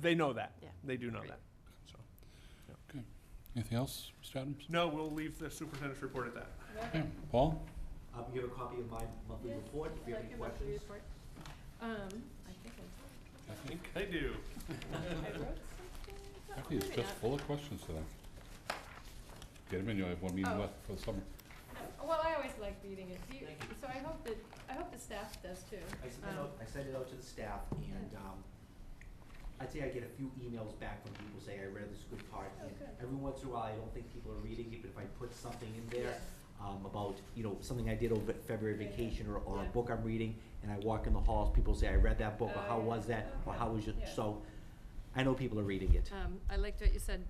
They know that. Yeah. They do know Great. that. So, Anything else, Mr. Adams? no, we'll leave the superintendent's report at that. Okay. Paul? I'll give Um, a copy of my monthly Yeah, report if you have any questions. Um, I think I I think I do. did. I wrote something. Kathy is Maybe just not. full of questions today. Get them in, you have one meeting Oh. left for the summer. No, Well, I always like reading it, Do you- Thank you. so I hope that, I hope the staff does too. I sent it Um, out, I sent it out to the staff and, um, I'd say I get a few emails back from people saying, I read this good part. Oh, and good. Every once in a while, I don't think people are reading it, but if I put something in there, yes. um, about, you know, something I did over February Yeah, yeah. vacation or, or a Yeah. book I'm reading, and I walk in the halls, people say, I read that book, or Oh, how yeah. was that, or Okay. how was your, Yeah. so, I know people are reading it. Um, I liked what you said,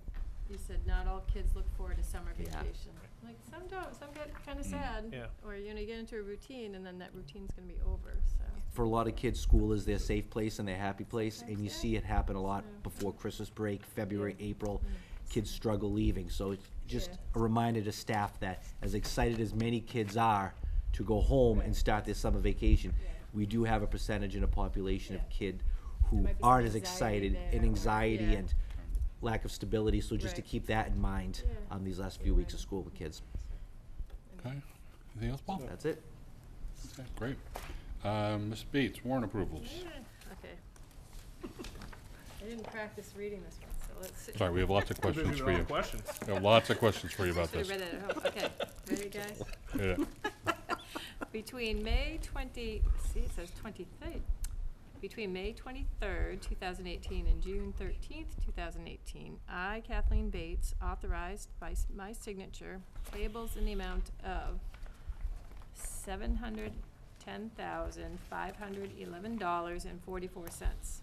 you said not all kids look forward to summer Yeah. vacation. Like, some don't, some get kinda Mm. sad. Yeah. Or, you know, you get into a routine and then that routine's gonna be over, so. for a lot of kids, school is their safe place and their happy place, and you see it happen a lot Yeah. before Christmas break, February, Yeah. April. Mm. Kids struggle leaving, so it's just Yeah. a reminder to staff that as excited as many kids are to go home and start their summer vacation, Yeah. we do have a percentage in a population of Yeah. kid There who might be some aren't as anxiety excited there and or- anxiety yeah. and lack of stability, so just to Right. keep that in mind Yeah. on these last few weeks of Right. school with kids. Okay, anything else, Paul? That's it. Okay, great. Um, Ms. Bates, warrant approvals. Yeah, Eh, Okay. I didn't practice reading this one, so let's see. Sorry, we have lots of questions for Maybe you. no Questions. We have lots of questions for you about Should have this. read it at home, okay. Ready, guys? Yeah. Between May twenty, see, it says twenty-third. Between May twenty-third, two thousand eighteen, and June thirteenth, two thousand eighteen, I, Kathleen Bates, authorized by s- my signature payables in the amount of seven hundred ten thousand five hundred eleven dollars and forty-four cents.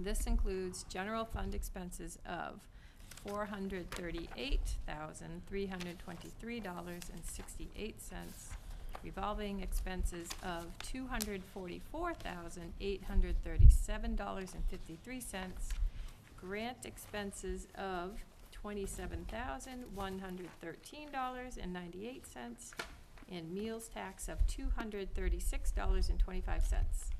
This includes general fund expenses of four hundred thirty-eight thousand, three hundred twenty-three dollars and sixty-eight cents, revolving expenses of two hundred forty-four thousand, eight hundred thirty-seven dollars and fifty-three cents, grant expenses of twenty-seven thousand, one hundred thirteen dollars and ninety-eight cents, and meals tax of two hundred thirty-six dollars and twenty-five cents.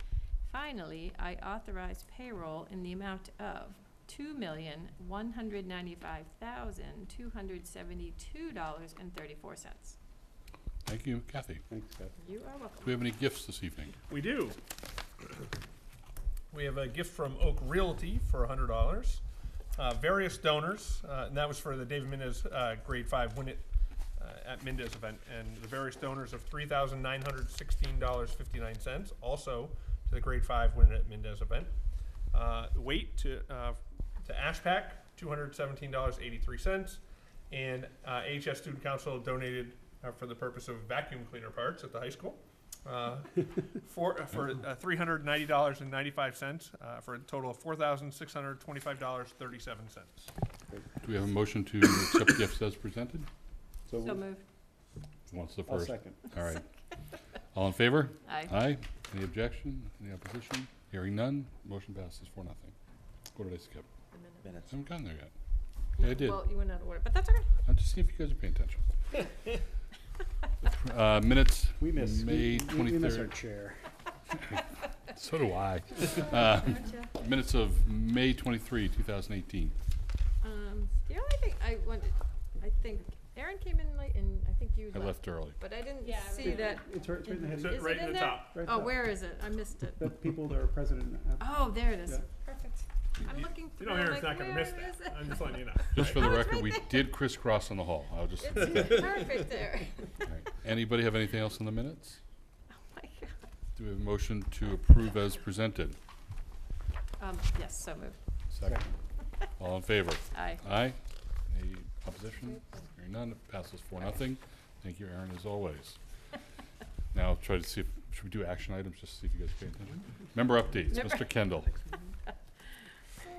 Finally, I authorize payroll in the amount of two million, one hundred ninety-five thousand, two hundred seventy-two dollars and thirty-four cents. Thank you, Kathy. Do You are we welcome. have any gifts this evening? We do. We have a gift from Oak Realty for hundred dollars. Uh, various donors, uh, and that was for the David Mendez uh, Grade Five Win It uh, at Mendez event, and the various donors of three thousand nine hundred sixteen dollars fifty nine cents, also to the Grade Five Win It at Mendez event. Uh, weight to uh, to Ashpac two hundred seventeen dollars eighty three cents, and uh, AHS Student Council donated uh, for the purpose of vacuum cleaner parts at the high school. Uh, for, uh, for uh, three hundred ninety dollars and ninety-five cents, uh, for a total of four thousand six hundred twenty-five dollars thirty-seven cents. Do we have a motion to accept gifts as presented? So moved. What's the I'll first? second. All right. All in favor? Aye. Aye. Any objection? Any opposition? Hearing none, motion passes for nothing. What did I skip? The minute. Minutes. Haven't gotten there yet. Yeah, I did. Well, you went out of order, but that's all right. I'm just seeing if you guys are paying attention. Uh, minutes, We miss, May we- we- we miss our twenty-third. chair. So do I. Uh, Aren't ya? minutes of May twenty-three, two thousand eighteen. Um, the only thing I wanted, I think Aaron came in late and I think you I left, left early. but I didn't Yeah, I see remember. that. It's right, it's right in the It's Is heading, it right in in the there? top. right Oh, there. where is it? I missed it. The people that are president. and ab- Oh, there it is. Yeah. Perfect. I'm You- looking You through, know, I'm Aaron's like, not gonna where miss is it? that. I'm just letting you know. Just for right? the Oh, it's record, right we there. did crisscross in the hall. I'll just. It's perfect there. All right. Anybody have anything else on the minutes? Oh, my God. Do we have a motion to approve as presented? Um, yes, so moved. Second. All in favor? Aye. Aye. Any opposition? Hearing none, it passes four, nothing. Thank you, Aaron, as always. Now, try to see, if should we do action items, just to see if you guys pay attention? Member updates, Member- Mr. Kendall.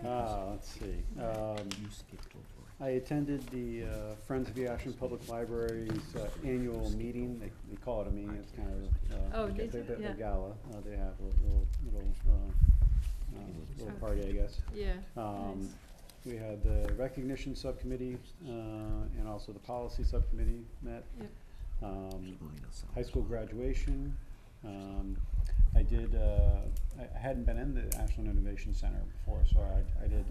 Ah, let's see. Um, You skipped over it. I attended the uh, Friends of the Ashland Public Library's uh, annual meeting. They, they call it a meeting, it's kind of, uh, Oh, like a did bit you? of Yeah. a gala. Uh, They have a little, little, uh, uh, little party, I guess. Yeah. Um, nice. We had the recognition subcommittee, uh, and also the policy subcommittee met. Yep. Um, high school graduation. Um, I did, uh, I I hadn't been in the Ashland Innovation Center before, so I, I did